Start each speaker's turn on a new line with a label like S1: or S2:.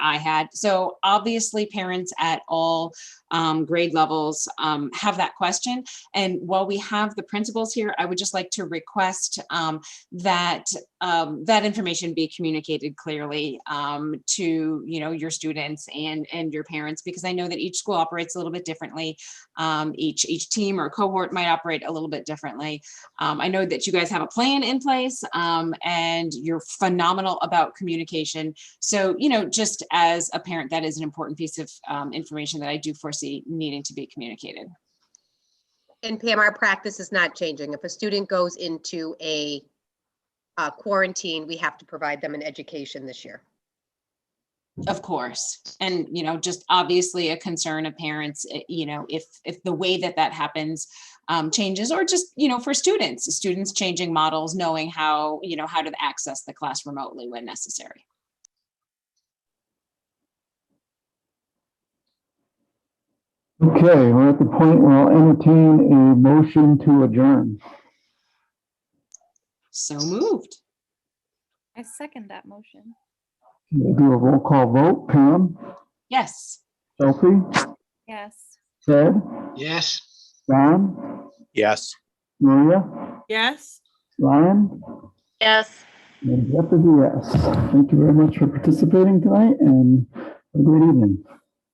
S1: I had. So obviously, parents at all um, grade levels um, have that question. And while we have the principals here, I would just like to request um, that um, that information be communicated clearly um, to you know your students and and your parents because I know that each school operates a little bit differently. Um, each each team or cohort might operate a little bit differently. Um, I know that you guys have a plan in place um, and you're phenomenal about communication. So you know, just as a parent, that is an important piece of um, information that I do foresee needing to be communicated.
S2: And Pam, our practice is not changing. If a student goes into a uh, quarantine, we have to provide them an education this year.
S1: Of course. And, you know, just obviously a concern of parents, eh, you know, if, if the way that that happens um, changes or just, you know, for students, students changing models, knowing how, you know, how to access the class remotely when necessary.
S3: Okay, we're at the point where I'll entertain a motion to adjourn.
S1: So moved.
S4: I second that motion.
S3: We'll do a roll call vote. Pam,
S1: Yes.
S3: Sophie,
S4: Yes.
S3: Ted,
S5: Yes.
S3: Don,
S6: Yes.
S3: Maria,
S7: Yes.
S3: Ryan,
S8: Yes.
S3: and Jeff is a yes. Thank you very much for participating tonight and have a great evening.